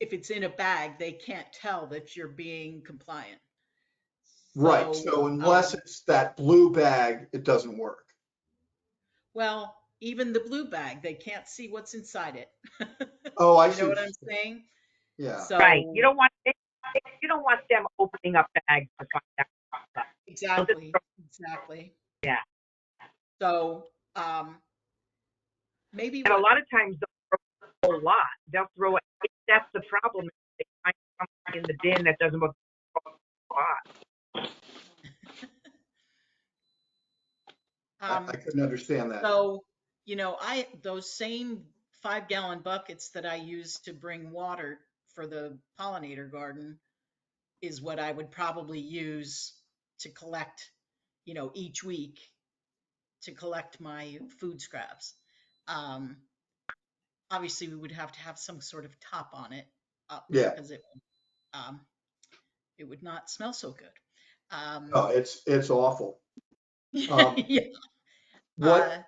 if it's in a bag, they can't tell that you're being compliant. Right, so unless um, it's that blue bag, it doesn't work. Well, even the blue bag, they can't see what's inside it. Oh, I You see. know what what I'm you- saying? Yeah, So. Right, you don't want, you don't want them opening up bags to find out. Exactly, exactly. Yeah. So, um, maybe And a what- lot of times they'll throw a lot. They'll throw it. If that's the problem, they find something in the bin that doesn't look hot. I um, I couldn't understand that. so, you know, I, those same five gallon buckets that I use to bring water for the pollinator garden is what I would probably use to collect, you know, each week to collect my food scraps. Um, obviously we would have to have some sort of top on it. uh, Yeah. Because it, um, it would not smell so good. Um, No, it's, it's awful. Oh, um, yeah, What, uh,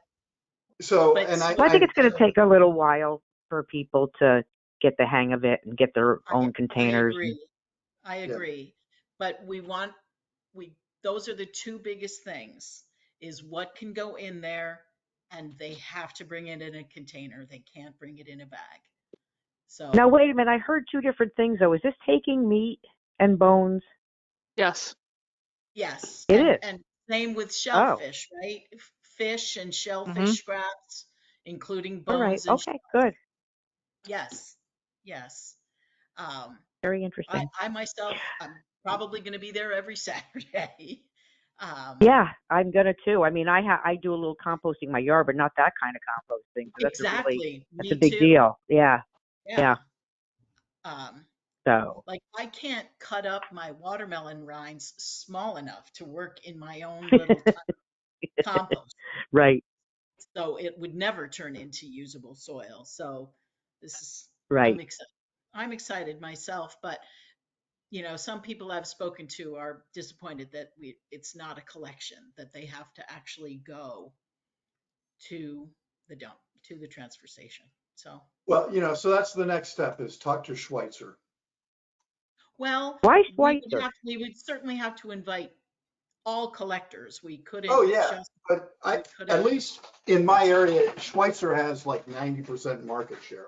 so, but and I. so- I think it's going to take a little while for people to get the hang of it and get their I- own I containers. and- agree. I agree. But we want, we, those are the two biggest things, is what can go in there and they have to bring it in a container. They can't bring it in a bag. So, Now, wait a minute, I heard two different things though. Is this taking meat and bones? Yes. yes. It and- is. Oh. And same with shellfish, right? F- Fish and shellfish scraps, including Mm-hmm. All right, bones and, sh- okay, good, yes, yes. Um, very I, interesting. I myself, I'm probably going to be there every Saturday. Um, Yeah, I'm gonna too. I mean, I ha, I do a little composting in my yard, but not that kind of composting. so That's a really- Exactly. That's Me a big too. deal, yeah, yeah. Um, so, like I can't cut up my watermelon rinds small enough to work in my own little t- compost. right, So it would never turn into usable soil. So this is, I'm right, excited. I'm excited myself, but you know, some people I've spoken to are disappointed that we, it's not a collection, that they have to actually go to the dump, to the transfer station. So, Well, you know, so that's the next step is talk to Schweitzer. well, why we would Schweitzer? have- We would certainly have to invite all collectors. We couldn't. Oh, yeah. just- But we I, at couldn't- least in my area, Schweitzer has like ninety percent market share.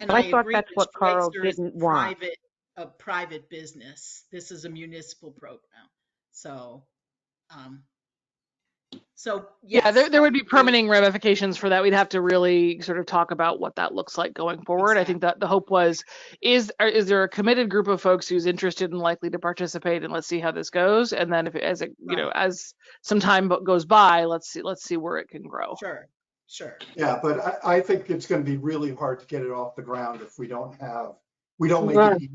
and I thought agree that's that what Carl Schweitzer is a didn't want. private- A private business. This is a municipal program. So, um, so. Yeah, there, yes, there would be we- permitting ramifications for that. We'd have to really sort of talk about what that looks like going forward. I think that the hope was, is, are- is there a committed group of folks who's interested and likely to participate and let's see how this goes? And then if, it- as it, you know, as some time bo- goes by, let's see, let's see where it can grow. Sure, sure. Yeah, but I, I think it's gonna be really hard to get it off the ground if we don't have, we don't make Right. it. ea-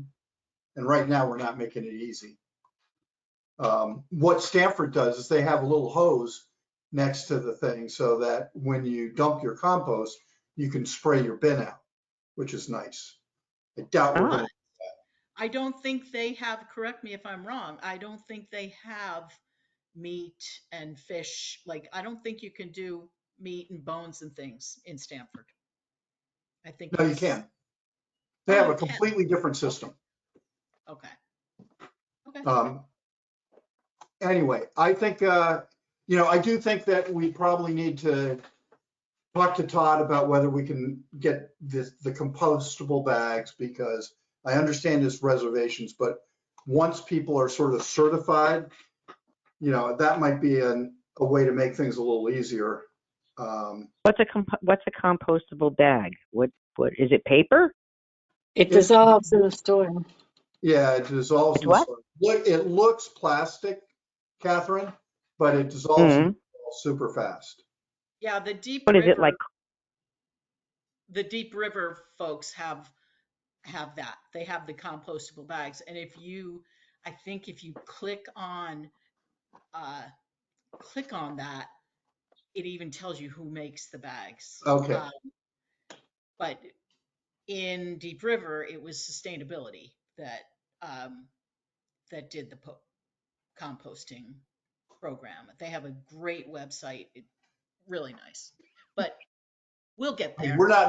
And right now, we're not making it easy. Um, what Stanford does is they have a little hose next to the thing so that when you dump your compost, you can spray your bin out, which is nice. I doubt we're gonna, I don't think they have, correct me if I'm wrong, I don't think they have meat and fish. Like, I don't think you can do meat and bones and things in Stanford. I think. no, you it's- can. They Oh, have you a can. completely different system. Okay. Okay. Um, Anyway, I think, uh, you know, I do think that we probably need to talk to Todd about whether we can get the, the compostable bags because I understand his reservations, but once people are sort of certified, you know, that might be an, a way to make things a little easier. Um, What's a comp- what's a compostable bag? What what is it? Paper? It It- dissolves in the storm. Yeah, it dissolves. It in the what? soil. Look, it looks plastic, Catherine, but it dissolves in the soil super fast. Yeah, the deep. What is it River- like? The Deep River folks have, have that. They have the compostable bags. And if you, I think if you click on, uh, click on that, it even tells you who makes the bags. Okay. Um, But in Deep River, it was sustainability that, um, that did the po- composting program. They have a great website. It, really nice, but we'll get there. We're not